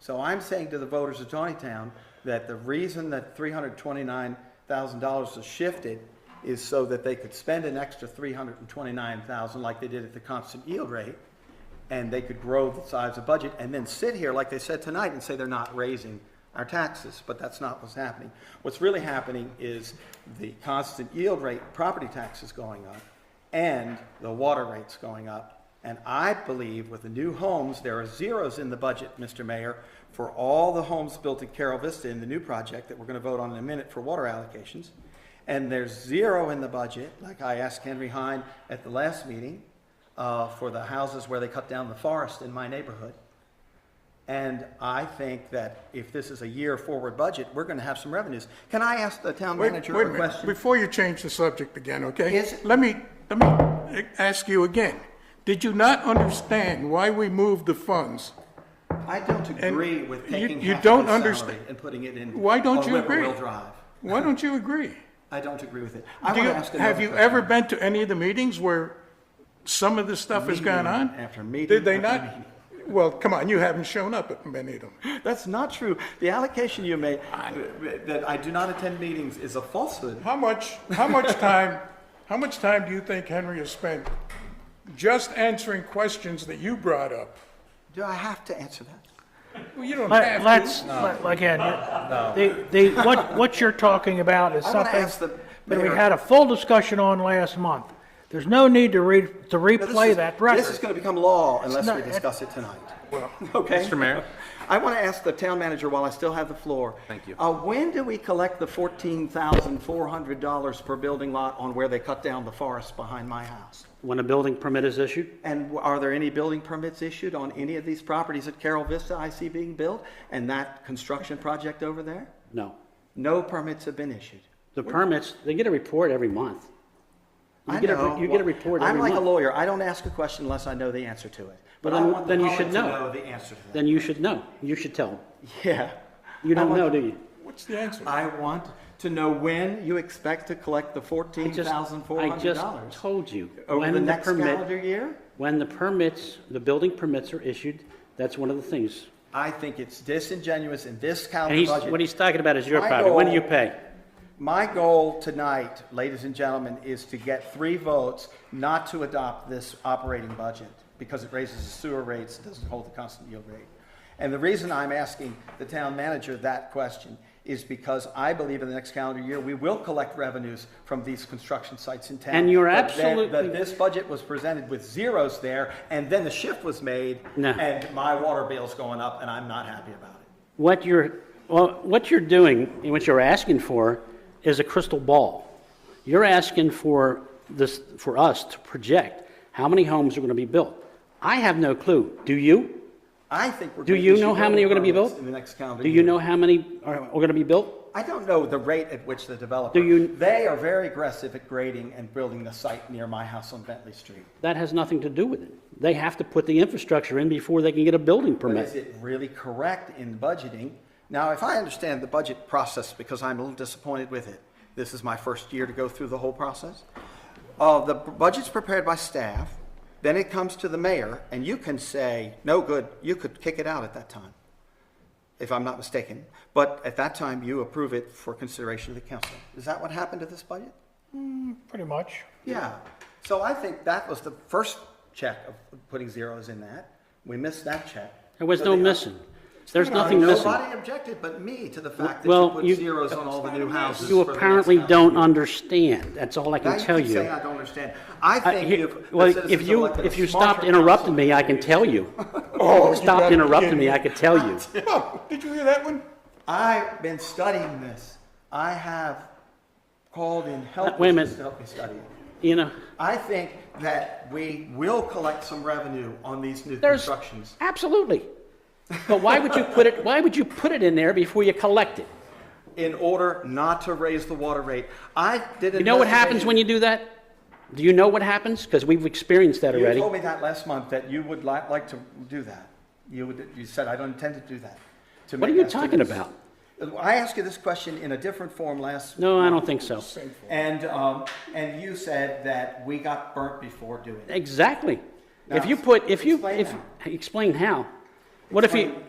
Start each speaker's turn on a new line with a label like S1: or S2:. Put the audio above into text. S1: So I'm saying to the voters of Tawnytown that the reason that three hundred twenty-nine thousand dollars was shifted is so that they could spend an extra three hundred and twenty-nine thousand like they did at the constant yield rate, and they could grow the size of budget, and then sit here, like they said tonight, and say they're not raising our taxes, but that's not what's happening. What's really happening is the constant yield rate, property tax is going up, and the water rate's going up. And I believe with the new homes, there are zeros in the budget, Mr. Mayor, for all the homes built in Carol Vista in the new project that we're gonna vote on in a minute for water allocations. And there's zero in the budget, like I asked Henry Hine at the last meeting, uh, for the houses where they cut down the forest in my neighborhood. And I think that if this is a year forward budget, we're gonna have some revenues. Can I ask the town
S2: Wait-
S1: manager
S2: wait
S1: a
S2: minute.
S1: question?
S2: Before you change the subject again, okay?
S1: Yes.
S2: Let me, let me ask you again. Did you not understand why we moved the funds?
S1: I don't agree with
S2: you-
S1: taking
S2: you
S1: half of
S2: don't
S1: his salary
S2: understand-
S1: and putting it in.
S2: Why don't
S1: on
S2: you agree?
S1: Whippoorwill Drive.
S2: Why don't you agree?
S1: I don't agree with it. I
S2: Do
S1: want
S2: you-
S1: to ask another
S2: Have you
S1: question.
S2: ever been to any of the meetings where some of this stuff has gone on?
S1: Meeting after meeting
S2: Did they
S1: after
S2: not? Well, come on, you haven't shown up at many of them.
S1: That's not true. The allocation you made, uh, that I do not attend meetings is a falsehood.
S2: How much, how much time, how much time do you think Henry has spent just answering questions that you brought up?
S1: Do I have to answer that?
S2: Well, you don't have
S3: Let-
S2: to.
S3: Let's, let- again, the, the, what, what you're talking about is
S1: I wanna
S3: something
S1: ask the
S3: that we
S1: mayor-
S3: had a full discussion on last month. There's no need to re, to
S1: Now, this
S3: replay
S1: is-
S3: that
S1: This is
S3: record.
S1: going to become law unless
S3: not-
S1: we discuss it tonight. Okay? Mr. Mayor? I want to ask the town manager while I still have the floor. Thank you. Uh, when do we collect the fourteen thousand four hundred dollars per building lot on where they cut down the forest behind my house?
S4: When a building permit is issued,
S1: And w- are there any building permits issued on any of these properties at Carol Vista I see being built and that construction project over there?
S4: no.
S1: No permits have been issued.
S4: The permits, they get a report every month. You
S1: I
S4: get a-
S1: know.
S4: You get a report
S1: I'm
S4: every
S1: like a
S4: month.
S1: lawyer. I don't ask a question unless I know the answer to it. But I
S4: then-
S1: want the
S4: then you
S1: public
S4: should
S1: to
S4: know.
S1: know the answer to that.
S4: Then you should know. You should tell. 'em.
S1: Yeah.
S4: You
S1: I
S4: don't
S1: want-
S4: know, do you?
S2: What's the answer?
S1: I want to know when you expect to collect the
S4: I just- I
S1: $14,400.
S4: just told you.
S1: Over
S4: when
S1: the next
S4: permit-
S1: calendar year?
S4: When the permits, the building permits are issued, that's one of the things.
S1: I think it's disingenuous in this
S4: And
S1: calendar
S4: he's,
S1: budget.
S4: what he's talking about is your
S1: My
S4: property. When do
S1: goal-
S4: you pay?
S1: My goal tonight, ladies and gentlemen, is to get three votes not to adopt this operating budget because it raises the sewer rates, doesn't hold the constant yield rate. And the reason I'm asking the town manager that question is because I believe in the next calendar year, we will collect revenues from these construction sites in town.
S4: And you're
S1: But then- but
S4: absolutely-
S1: This budget was presented with zeros there and then the shift was made.
S4: No.
S1: And my water bill's going up and I'm not happy about it.
S4: What you're, well, what you're doing and what you're asking for is a crystal ball. You're asking for this, for us to project how many homes are going to be built. I have no clue. Do you?
S1: I think we're.
S4: Do
S1: gonna
S4: you
S1: issue
S4: know how many are going to be
S1: permits
S4: built?
S1: In the next calendar
S4: Do
S1: year.
S4: you know how many are, are going to be built?
S1: I don't know the rate at which the developer.
S4: Do you-
S1: They are very aggressive at grading and building the site near my house on Bentley Street.
S4: That has nothing to do with it. They have to put the infrastructure in before they can get a building
S1: But is
S4: permit.
S1: it really correct in budgeting? Now, if I understand the budget process, because I'm a little disappointed with it, this is my first year to go through the whole process. Uh, the budget's prepared by staff, then it comes to the mayor, and you can say, no good, you could kick it out at that time, if I'm not mistaken. But at that time, you approve it for consideration of the council. Is that what happened to this budget?
S3: Pretty much.
S1: Yeah, so I think that was the first check of putting zeros in that. We missed that check.
S4: There was
S1: So
S4: no
S1: the-
S4: missing. There's
S1: Uh,
S4: nothing missing.
S1: Nobody objected but me to the fact that you
S4: Well,
S1: put
S4: you-
S1: zeros on all the new houses.
S4: You
S1: for the next
S4: apparently
S1: house.
S4: don't understand. That's all I
S1: Now
S4: can
S1: you
S4: tell
S1: keep
S4: you.
S1: saying I don't understand. I
S4: I-
S1: think
S4: he-
S1: if the
S4: Well, if
S1: citizens
S4: you,
S1: elected a
S4: if you
S1: smarter
S4: stopped interrupting
S1: council-
S4: me, I can tell you.
S2: Oh, you
S4: Stopped
S2: gotta be
S4: interrupting
S2: kidding
S4: me, I could tell you.
S2: Oh, did you hear that one?
S1: I've been studying this. I have called in help.
S4: Wait a
S1: businesses
S4: minute.
S1: To help me study it.
S4: You know,
S1: I think that we will collect some revenue on these new
S4: there's,
S1: constructions.
S4: absolutely. But why would you put it, why would you put it in there before you collect it?
S1: in order not to raise the water rate. I did an
S4: You know what happens when you do that? Do you know what happens? Because we've experienced that
S1: You
S4: already.
S1: told me that last month, that you would li- like to do that. You would, you said, I don't intend to do that. to
S4: What are
S1: make
S4: you
S1: that to
S4: talking
S1: this."
S4: about?
S1: I asked you this question in a different form last.
S4: No, I don't think so.
S1: And, um, and you said that we got burnt before doing it.
S4: Exactly. If
S1: Now,
S4: you put, if you,
S1: explain
S4: if,
S1: how.
S4: explain how. What if you,
S1: Explain.